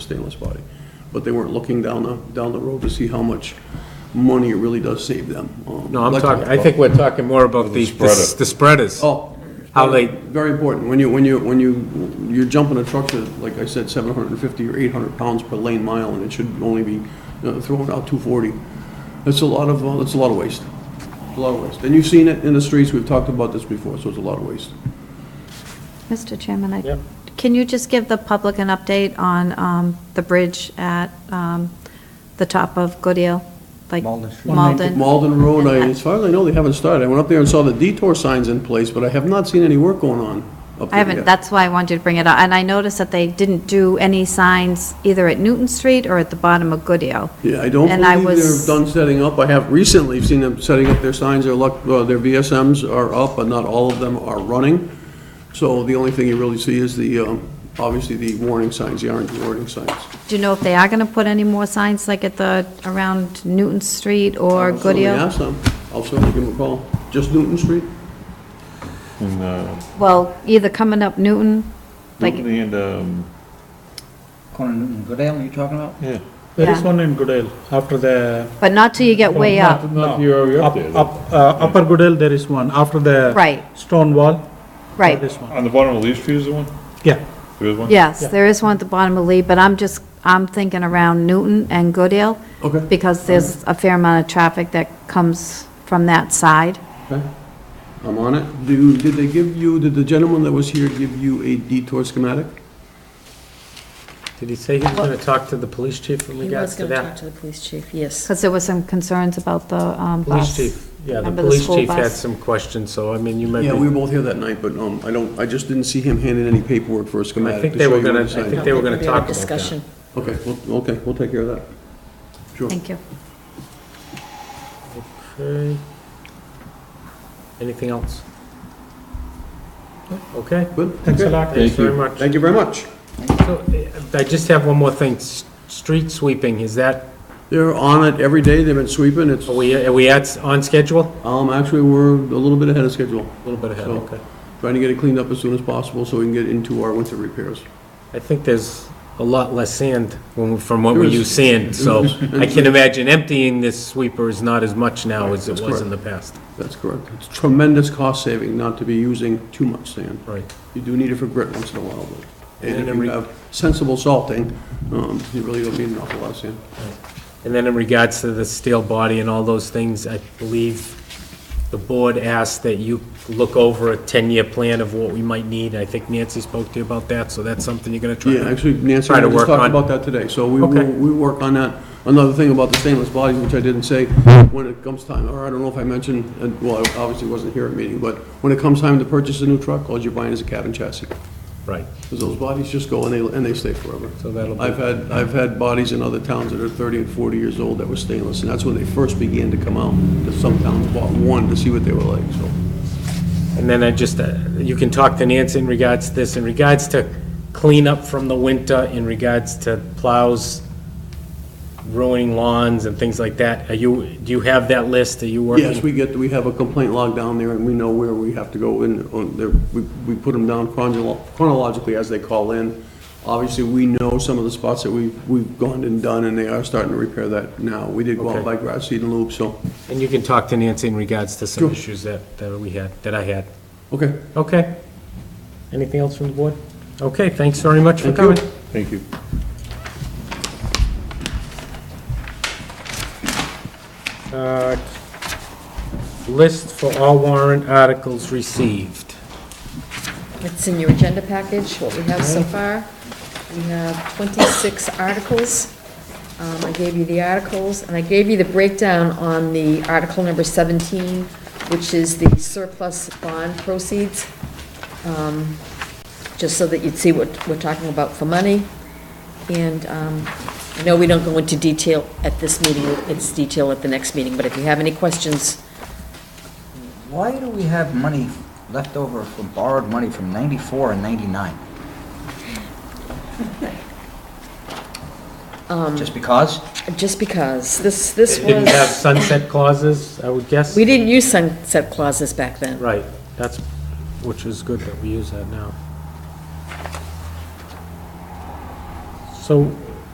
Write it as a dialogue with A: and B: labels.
A: stainless body. But they weren't looking down the, down the road to see how much money it really does save them. um,
B: No, I'm talking, I
A: electrical.
B: think we're talking more about the,
C: spreader.
B: the spreaders.
A: Oh.
B: How they-
A: Very important. When you, when you, when you, you're jumping a truck to, like I said, seven hundred and fifty or eight hundred pounds per lane mile, and it should only be uh, throwing out two forty. That's a lot of, uh, that's a lot of waste. A lot of waste. And you've seen it in the streets. We've talked about this before, so it's a lot of waste.
D: Mr. Chairman, I,
B: Yep.
D: can you just give the public an update on um, the bridge at um, the top of Goodale? like
E: Malden Street.
D: Malden?
A: Malden Road, I, as far as I know, they haven't started. I went up there and saw the detour signs in place, but I have not seen any work going on up there
D: I haven't,
A: yet.
D: that's why I wanted you to bring it up. And I noticed that they didn't do any signs either at Newton Street or at the bottom of Goodale.
A: Yeah, I don't
D: And I
A: believe
D: was-
A: they're done setting up. I have recently seen them setting up their signs, their luck, uh, their VSMs are up, but not all of them are running. So the only thing you really see is the, um, obviously, the warning signs, the orange warning signs.
D: Do you know if they are going to put any more signs like at the, around Newton Street or
A: I'll certainly
D: Goodale?
A: ask them. I'll certainly give them a call. Just Newton Street?
C: And, uh,
D: Well, either coming up Newton, like,
C: Newton and, um,
E: Corner Newton Goodale, you talking about?
C: yeah.
F: There is
D: Yeah.
F: one in Goodale, after the.
D: but not till you get way up.
C: Not your, up
F: Up,
C: there. though.
F: up, uh, upper Goodale, there is one, after the.
D: Right,
F: Stone wall.
D: right.
F: There is one,
C: On the bottom of Lee Street is the one?
F: yeah.
C: There is one?
D: Yes,
F: Yeah.
D: there is one at the bottom of Lee, but I'm just, I'm thinking around Newton and Goodale,
A: Okay.
D: because there's a fair amount of traffic that comes from that side.
A: Okay. I'm on it. Do, did they give you, did the gentleman that was here give you a detour schematic?
B: Did he say he was gonna talk to the police chief in
G: He was
B: regards to
G: going to talk
B: that?
G: to the police chief, yes.
D: Because there was some concerns about the um,
B: Police
D: bus.
B: chief, yeah, the
D: Remember the
B: police
D: school
B: chief had
D: bus?
B: some questions, so I mean, you might
A: Yeah, we
B: be,
A: were both here that night, but, um, I don't, I just didn't see him handing any paperwork for a
B: I
A: schematic
B: think
A: to
B: they
A: show
B: were
A: you
B: gonna,
A: on
B: I
A: the sign.
B: think they were gonna
G: There'll be a
B: talk about that.
G: Discussion.
A: Okay, well, okay, we'll take care of that. Sure.
D: Thank you.
B: Okay. Anything else? Okay,
A: Good?
F: Thanks a
A: Okay.
F: lot.
B: thanks very much.
A: Thank you very much.
B: So, uh, I just have one more thing, S- street sweeping, is that,
A: They're on it every day, they've been sweeping, it's,
B: are we, are we at, on schedule?
A: um, actually, we're a little bit ahead of schedule,
B: A little bit ahead,
A: So-
B: okay.
A: trying to get it cleaned up as soon as possible so we can get into our winter repairs.
B: I think there's a lot less sand when- from what we
A: There is.
B: use sand, so
A: There
B: I
A: is.
B: can imagine emptying this sweeper is not as much now as
A: That's
B: it was in the past.
A: That's correct. It's tremendous cost saving not to be using too much sand.
B: Right.
A: You do need it for grit once in a while, but, and
B: And
A: if
B: then
A: you
B: re-
A: have sensible salting, um, you really don't need an awful lot of sand.
B: And then in regards to the steel body and all those things, I believe the board asked that you look over a 10-year plan of what we might need. I think Nancy spoke to you about that, so that's something you're going to try.
A: Yeah, actually, Nancy
B: try
A: and
B: to
A: I just
B: work
A: talked
B: on-
A: about that today, so we
B: Okay.
A: will, we work on that. Another thing about the stainless bodies, which I didn't say, when it comes time, or I don't know if I mentioned, and, well, I obviously wasn't here at meeting, but when it comes time to purchase a new truck, all you're buying is a cab and chassis.
B: Right,
A: Because those bodies just go and they, and they stay forever.
B: so that'll be,
A: I've had, I've had bodies in other towns that are 30 and 40 years old that were stainless, and that's when they first began to come out. 'Cause Some towns bought one to see what they were like, so.
B: and then I just, uh, you can talk to Nancy in regards to this, in regards to cleanup from the winter, in regards to plows ruining lawns and things like that. Are you, do you have that list? Are you working?
A: Yes, we get, we have a complaint log down there, and we know where we have to go, and on there- we we put them down chronolo- chronologically as they call in. Obviously, we know some of the spots that we've we've gone and done, and they are starting to repair that now. We did go out
B: Okay.
A: by grass seed and loop, so,
B: And you can talk to Nancy in regards to some
A: Sure.
B: issues that, that we had, that I had.
A: okay.
B: Okay. Anything else from the board? Okay, thanks very much for
A: Thank you.
B: coming.
C: Thank you.
B: Uh, List for all warrant articles received.
G: It's in your agenda package, what we have so far. We have 26 articles. Um, I gave you the articles, and I gave you the breakdown on the article number 17, which is the surplus bond proceeds, um, just so that you'd see what we're talking about for money. And um, I know we don't go into detail at this meeting, it's detail at the next meeting, but if you have any questions,
E: Why do we have money left over from borrowed money from 94 and 99? Just because?
G: just because, this, this was...
B: Didn't have sunset clauses, I would guess?
G: We didn't use sunset clauses back then.
B: Right, that's, which is good that we use that now. So